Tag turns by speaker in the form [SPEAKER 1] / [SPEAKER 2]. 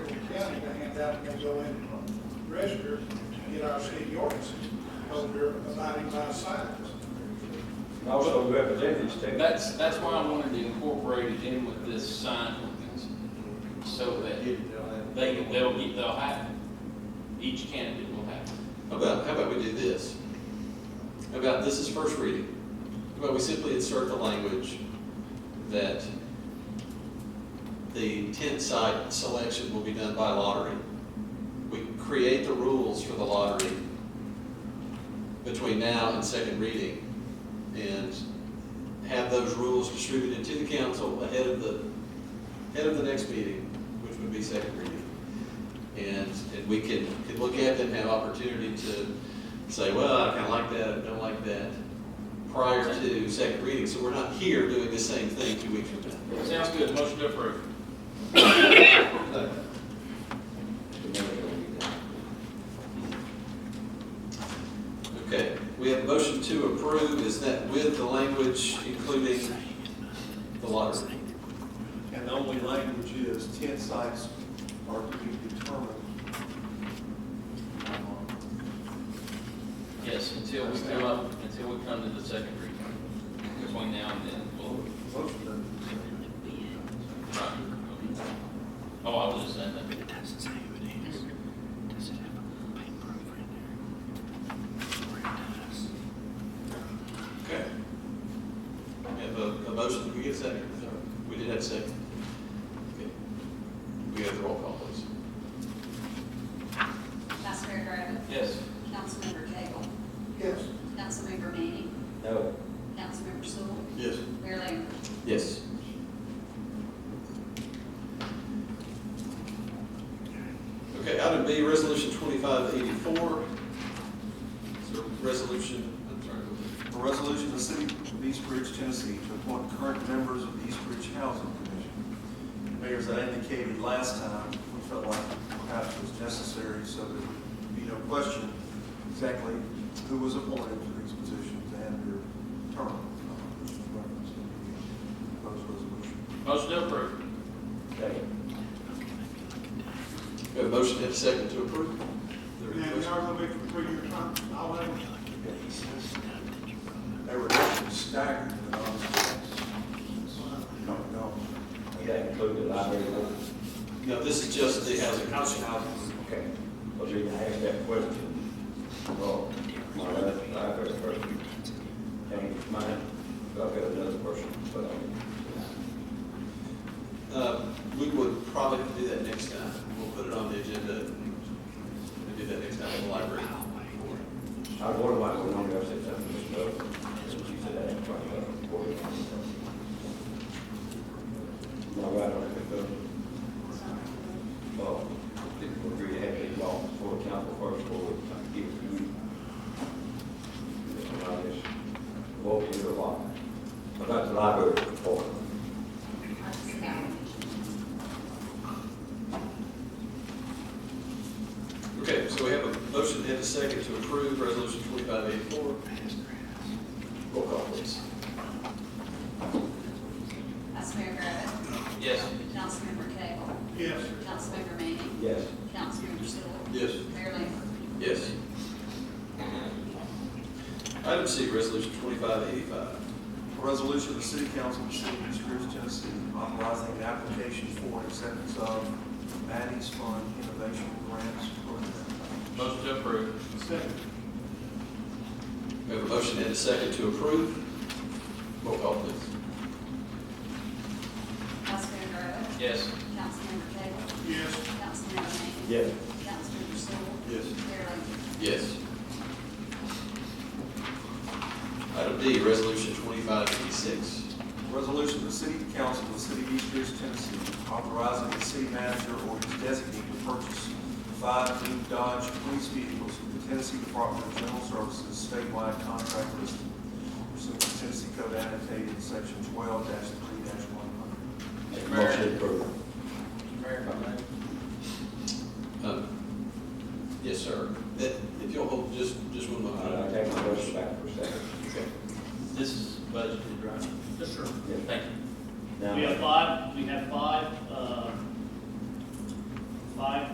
[SPEAKER 1] having to go in and register to get our city ordinance under abiding by signs.
[SPEAKER 2] And Also representatives too.
[SPEAKER 3] That's, that's why I wanted to incorporate it in with this sign ordinance, so that they, they'll get, they'll have it. Each candidate will have it.
[SPEAKER 4] How about, how about we do this? How about, this is first reading. How about we simply insert the language that the tent site selection will be done by lottery. We create the rules for the lottery between now and second reading and have those rules distributed to the council ahead of the, ahead of the next meeting, which would be second reading. And, and we can, can look at them, have opportunity to say, well, I kinda like that, I don't like that, prior to second reading, so we're not here doing the same thing two weeks from now.
[SPEAKER 3] Sounds good, motion to approve.
[SPEAKER 4] Okay, we have a motion to approve, is that with the language including the lottery?
[SPEAKER 5] And the only language is tent sites are to be determined.
[SPEAKER 3] Yes, until we come up, until we come to the second reading, between now and then, we'll. Right. Oh, I was just saying that.
[SPEAKER 6] It doesn't say who it is. Does it have a paint broker in there? Or it does.
[SPEAKER 4] Okay. We have a, a motion, Did we get a second? We did have a second. Okay. We have the roll call, please.
[SPEAKER 7] Vice Mayor Griffin.
[SPEAKER 3] Yes.
[SPEAKER 7] Councilmember Cagle.
[SPEAKER 1] Yes,
[SPEAKER 7] Councilmember Manning.
[SPEAKER 2] No.
[SPEAKER 7] Councilmember Sewell.
[SPEAKER 4] Yes.
[SPEAKER 7] Mayor Lambert.
[SPEAKER 4] Yes. Okay, item B, resolution twenty-five eighty-four. It's a resolution, I'm sorry.
[SPEAKER 5] A resolution of the city of East Ridge, Tennessee to appoint current members of the East Ridge Housing Commission. Mayor, as I indicated last time, we felt like perhaps it was necessary so there would be no question exactly who was appointed to these positions and their term. uh, which is referenced in the Proposed resolution.
[SPEAKER 3] Motion to approve.
[SPEAKER 2] Second.
[SPEAKER 4] We have a motion and a second to approve. There any
[SPEAKER 1] now, we
[SPEAKER 4] questions?
[SPEAKER 1] are going to be for three-year term, I'll have it.
[SPEAKER 5] They were actually staggered, but honestly, no, no.
[SPEAKER 2] Does that include the library?
[SPEAKER 4] No, this is just the housing. Housing.
[SPEAKER 2] Okay. Well, you can ask that question. Well, my, my first person changed mine. So I've got another person, but I'm.
[SPEAKER 4] Uh, we would probably do that next time. We'll put it on the agenda and do that next time in the library.
[SPEAKER 2] I wonder why we don't have said something to Snow. She said that in front of the board. My right on the vote. Well, people were really happy to walk before council first board, trying to give it to you. And I just walked into the lot. But that's the library report.
[SPEAKER 7] Artis Allen.
[SPEAKER 4] Okay, so we have a motion and a second to approve resolution twenty-five eighty-four. Roll call, please.
[SPEAKER 7] Vice Mayor Griffin.
[SPEAKER 3] Yes.
[SPEAKER 7] Councilmember Cagle.
[SPEAKER 1] yes,
[SPEAKER 7] Councilmember Manning.
[SPEAKER 2] Yes,
[SPEAKER 7] Councilmember Sewell.
[SPEAKER 4] Yes.
[SPEAKER 7] Mayor Lambert.
[SPEAKER 4] Yes. Item C, resolution twenty-five eighty-five.
[SPEAKER 5] A resolution of the city council of the city of East Ridge, Tennessee, authorizing an application for and acceptance of Maddie's Fund Innovation Grants Program.
[SPEAKER 3] Motion to approve.
[SPEAKER 1] second,
[SPEAKER 4] We have a motion and a second to approve. Roll call, please.
[SPEAKER 7] Vice Mayor Griffin.
[SPEAKER 3] Yes.
[SPEAKER 7] Councilmember Cagle.
[SPEAKER 1] yes,
[SPEAKER 7] Councilmember Manning.
[SPEAKER 2] yes,
[SPEAKER 7] Councilmember Sewell.
[SPEAKER 4] Yes.
[SPEAKER 7] Mayor Lambert.
[SPEAKER 4] Yes. Item D, resolution twenty-five eighty-six.
[SPEAKER 5] Resolution of the city council of the city of East Ridge, Tennessee, authorizing the city manager or his designee to purchase five new Dodge police vehicles from the Tennessee Department of General Services statewide contract list pursuant to Tennessee Code annotated section twelve three one hundred.
[SPEAKER 2] make a
[SPEAKER 3] Mayor.
[SPEAKER 2] motion approved.
[SPEAKER 3] Mayor,
[SPEAKER 4] Um, Yes, sir. That- If you'll hold just, just one
[SPEAKER 2] All right, I'll
[SPEAKER 4] moment.
[SPEAKER 2] take my motion back for a second.
[SPEAKER 4] Okay.
[SPEAKER 3] This is budgeted, right?
[SPEAKER 8] Yes, sir.
[SPEAKER 2] Yes.
[SPEAKER 3] Thank you.
[SPEAKER 2] Now-
[SPEAKER 8] We have five, we have five, uh, five